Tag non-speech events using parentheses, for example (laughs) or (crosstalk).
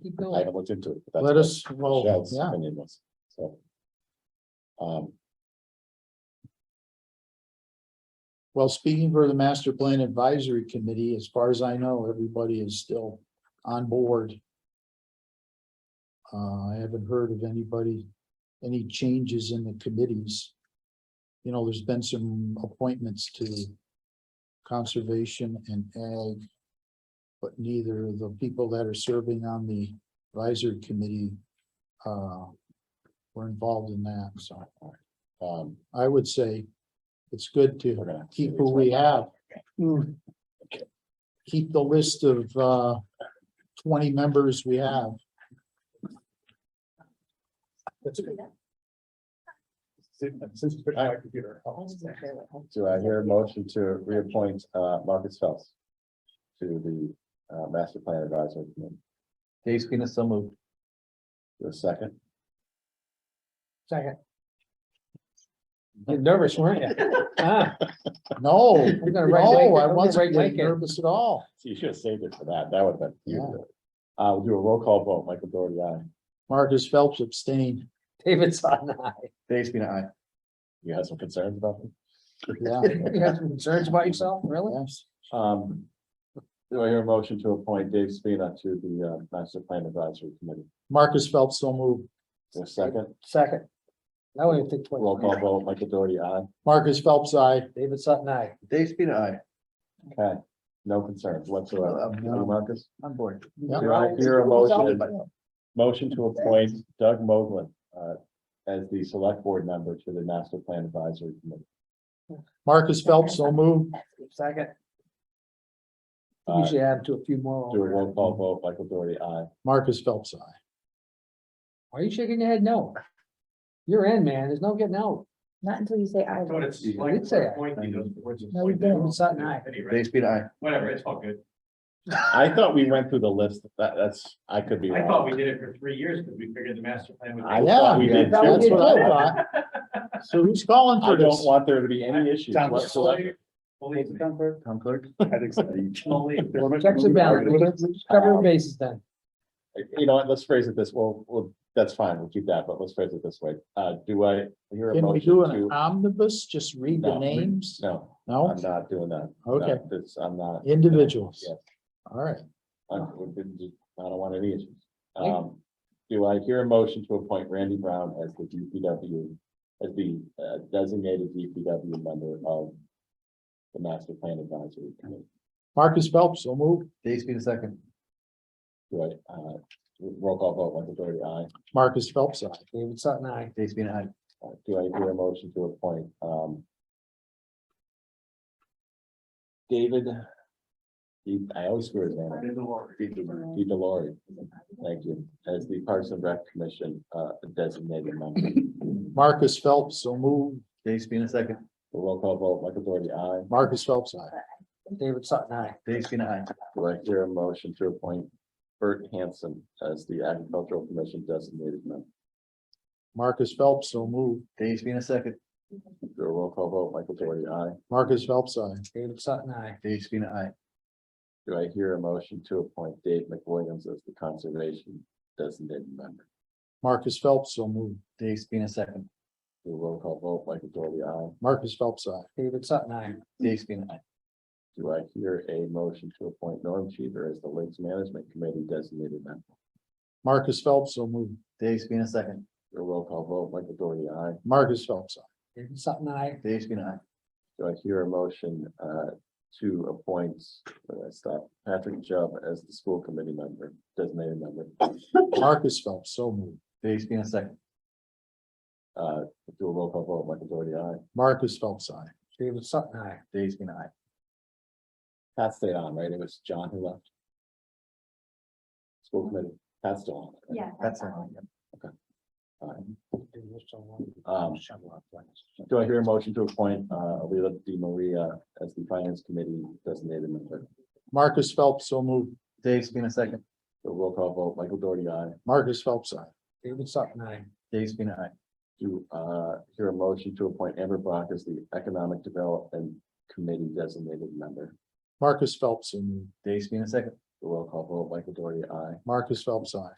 keep I going. haven't looked into it. but that's Let what us, well, Michelle's yeah, opinion was, so. Um, well, speaking for the master plan advisory committee, as far as I know, everybody is still on board. Uh, I haven't heard of anybody, any changes in the committees. You know, there's been some appointments to conservation and ag. But neither of the people that are serving on the advisory committee, uh, were involved in that, so. um, I would say it's good we're to gonna. keep who we have. Keep the list of uh twenty members we have. Do I hear a motion to reappoint, uh, Marcus Phelps? To the, uh, master plan advisory committee, Dave Spina, so moved. the second, Second. You're nervous, weren't (laughs) you? Ah, No, gonna write no, I blank- we're gonna wasn't write getting blank in. nervous at all. So you should have saved it for that, that would have been. beautiful. Uh, we'll do a roll call vote, Michael Doherty, aye. Marcus Phelps abstained. David Sutton, aye. Dave Spina, aye. You had some concerns about them? Yeah, You have some concerns about yourself, really? yes. Um, do I hear a motion to appoint Dave Spina to the, uh, master plan advisory committee, Marcus Phelps so moved. the second, Second. Now we have to take twice. roll call vote, Michael Doherty, aye. Marcus Phelps, I. David Sutton, I. Dave Spina, aye. Okay, no concerns whatsoever. Uh, no. Marcus? I'm bored. Do I hear a motion, motion to appoint Doug Moglen uh, as the select board member to the master plan advisory committee? Marcus Phelps so moved. Second. Uh, Usually add to a few more. Do a roll call vote, Michael Doherty, aye. Marcus Phelps, I. Why are you shaking your head? No. You're in, man. There's no getting out. Not until you say I. That's what will. it's like. did say for that. appointing those boards and No, we appointing don't. them. It's not nice. Anyway, Dave Spina, aye. Whatever, it's all good. I thought we went through the list. That, that's, I could be I thought wrong. we did it for three years because we figured the master plan would. I be- thought we Yeah, did. that's too. what I (laughs) thought. So who's calling I for don't this? want there to be any issues whatsoever. Believe me. Town clerk. Believe me. Checks and balances. Cover your bases then. You know what, let's phrase it this, well, well, that's fine, we'll keep that, but let's phrase it this way. Uh, do I hear a Can we do motion an to? omnibus? Just read the No. names? No. No, I'm not doing that. Okay. No, That's, I'm not, individuals. Yeah. All right. I would- didn't do- I don't want any issues. Um, do I hear a motion to appoint Randy Brown as the DPW, as the uh, designated DPW member of the master plan advisory committee? Marcus Phelps, so moved. Dave Spina, second. Do I, uh, roll call vote, Michael Doherty, aye. Marcus Phelps, aye. David Sutton, I. Dave Spina, aye. Uh, Do I hear a motion to appoint, um, David, he- I always screw his name up. In the water. Pete Delory, thank you, as the Parks and Rec Commission uh, designated member. Marcus Phelps, so moved. Dave Spina, second. Roll call vote, Michael Doherty, aye. Marcus Phelps, aye. David Sutton, I. Dave Spina, aye. Do I hear a motion to appoint Bert Hanson as the Agricultural Commission designated member? Marcus Phelps, so moved. Dave Spina, second. Do a roll call vote, Michael Doherty, aye. Marcus Phelps, aye. David Sutton, I. Dave Spina, aye. Do I hear a motion to appoint Dave McWilliams as the Conservation designated member? Marcus Phelps, so moved. Dave Spina, second. Do a roll call vote, Michael Doherty, aye. Marcus Phelps, aye. David Sutton, I. Dave Spina, aye. Do I hear a motion to appoint Norm Cheever as the Lakes Management Committee designated member? Marcus Phelps, so moved. Dave Spina, second. Do a roll call vote, Michael Doherty, aye. Marcus Phelps, aye. David Sutton, I. Dave Spina, aye. Do I hear a motion uh to appoint, where did I stop, Patrick Jubb as the school committee member, designated member? Marcus Phelps, so moved. Dave Spina, second. Uh, do a roll call vote, Michael Doherty, aye. Marcus Phelps, aye. David Sutton, I. Dave Spina, aye. Pat stayed on, right? It was John who left. School committee, Pat's still on. right? Yeah. That's it. all. All right. Um, Do I hear a motion to appoint uh Alila Di Maria as the finance committee designated member? Marcus Phelps, so moved. Dave Spina, second. Do a roll call vote, Michael Doherty, aye. Marcus Phelps, aye. David Sutton, I. Dave Spina, aye. Do uh hear a motion to appoint Amber Brock as the economic development committee designated member? Marcus Phelps, so moved. Dave Spina, second. Do roll call vote, Michael Doherty, aye. Marcus Phelps, I.